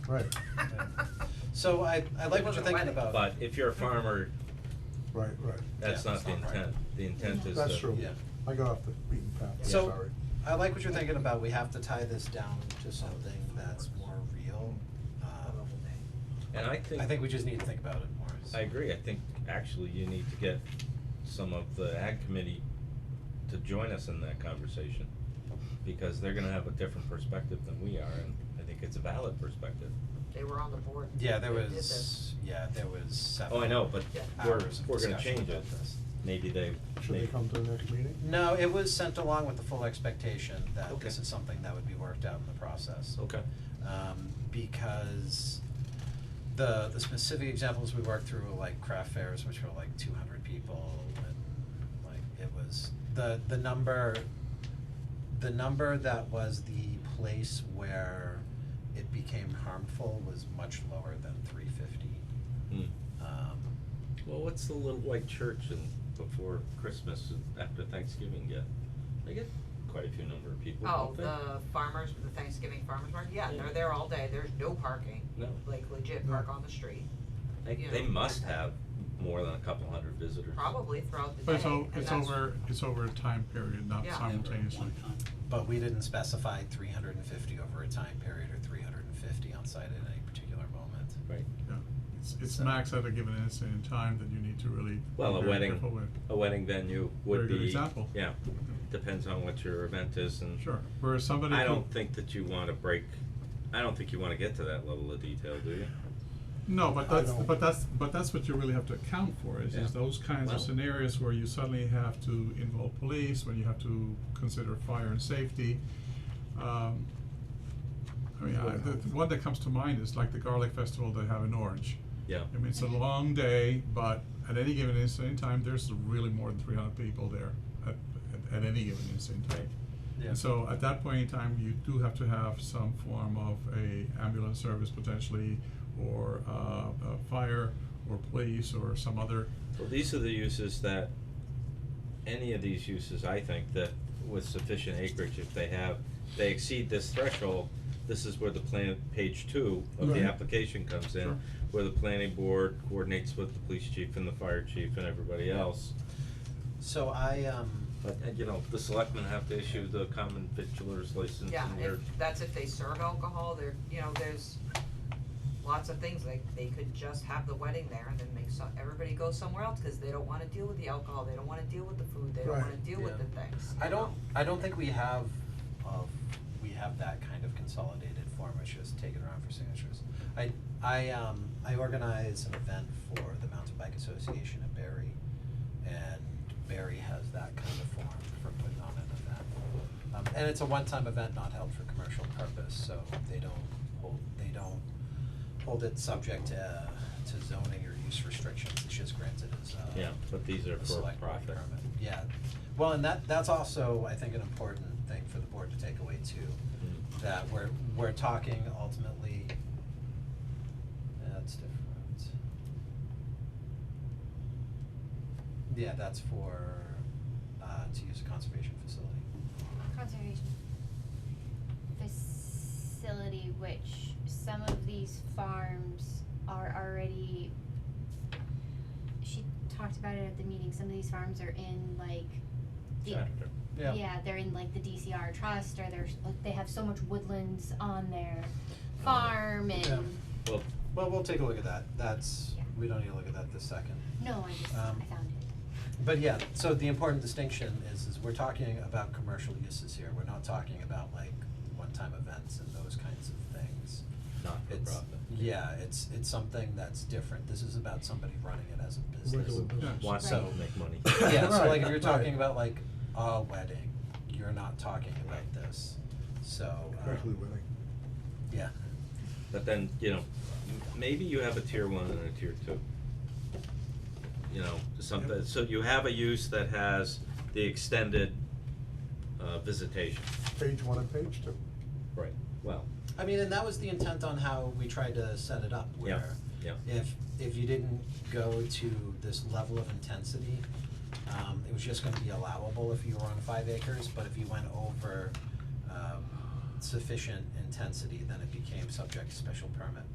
Right. So I, I like what you're thinking about. But if you're a farmer, Right, right. that's Yeah, not the it's not right. intent, the intent is to. That's true. Yeah. I got off the beaten path, I'm So- sorry. I like what you're thinking about, we have to tie this down to something that's more real. Um, And I think. I think we just need to think about it more. I agree, I think actually you need to get some of the ag committee to join us in that conversation. Because they're gonna have a different perspective than we are, and I think it's a valid perspective. They were on the board. Yeah, there that did this. was, yeah, there was seven. Oh, I know, but Yeah. we're, hours of we're gonna discussion change it, about this. maybe they, Should they maybe, come to the next meeting? No, it was sent along with the full expectation that this Okay. is something that would be worked out in the process. okay, Um, because the, the specific examples we worked through were like craft fairs, which were like two hundred people and like it was, the, the number, the number that was the place where it became harmful was much lower than three fifty. hmm. Um, Well, what's the little white church in, before Christmas, and after Thanksgiving get? They get quite a few number of people, Oh, don't they? the farmers, the Thanksgiving farmers market, yeah, Yeah. they're there all day, there's no parking, No, like legit park on the street, they, you they know, must I- I- have more than a couple hundred visitors. probably throughout the day. But it's o- and it's that's- over, it's over a time period, not Yeah. simultaneously. but we didn't specify three hundred and fifty over a time period or three hundred and fifty on site at any particular moment. Right. Yeah, it's, it's max at a given instant in time that you need to really be Well, a very wedding, careful with. a wedding venue would Very be. good example. Yeah, depends on what your event is and. Sure, whereas somebody I who- don't think that you wanna break, I don't think you wanna get to that level of detail, do you? No, but I that's, don't- but that's, but that's what you really have to account for, is, Yeah. is those kinds Well- of scenarios where you suddenly have to involve police, when you have to consider fire and safety. Um, I mean, I, the, the one that comes to mind is like the garlic festival they have in Orange. Yeah, I mean, it's a long day, but at any given instant in time, there's really more than three hundred people there at, at, at any given instant in time. And so at that point in time, you do have to have some form of a ambulance service potentially, or uh, a fire, or police, or some other, well, these are the uses that, any of these uses, I think, that with sufficient acreage, if they have, they exceed this threshold, this is where the plan, page two of the Right. application comes in, Sure. where the planning board coordinates with the police chief and the fire chief and everybody else. So I, um, But, uh, you know, the selectmen have to issue the common victualers license Yeah, and if, we're, that's if they serve alcohol, there, you know, there's lots of things, like, they could just have the wedding there and then make some, everybody go somewhere else, cause they don't wanna deal with the alcohol, they don't wanna deal with the food, they don't Right. wanna deal with the Yeah. things. I you don't, know? I don't think we have, uh, we have that kind of consolidated form, it's just taken around for signatures. I, I, um, I organize an event for the Mountain Bike Association at Barry, and Barry has that kind of form for putting on an event. Um, and it's a one-time event not held for commercial purpose, so they don't hold, they don't hold it subject to, uh, to zoning or use restrictions, it's just granted as, uh, yeah, but these are a for select board profit. permit. Yeah, well, and that, that's also, I think, an important thing for the board to take away too, Mm. that we're, we're talking ultimately, that's different. Yeah, that's for, uh, to use a conservation facility. conservation facility, which some of these farms are already. She talked about it at the meeting. Some of these farms are in like the Chapter. yeah, they're in like the DCR trust, or they're like they have so much woodlands on their farm, and Yeah. Well, Well, we'll take a look at that, that's, Yeah. we don't need to look at that this second. no, I just Um, I found it. But yeah, so the important distinction is, is we're talking about commercial uses here, we're not talking about like one-time events and those kinds of things. not for It's, profit. yeah, it's, it's something that's different, this is about somebody running it as a business. Regular business. Wants to So- make money. Yeah, so like if Right, you're talking right. about like a wedding, you're not talking about this, so, um, Quickly winning. yeah, But then, you know, m- maybe you have a tier one and a tier two. You know, something, Yep. so you have a use that has the extended uh visitation. Page one and page two. Right. Well, I mean, and that was the intent on how we tried to set it up, where Yeah, yeah. if if you didn't go to this level of intensity, um, it was just gonna be allowable if you were on five acres, but if you went over, um, sufficient intensity, then it became subject to special permit.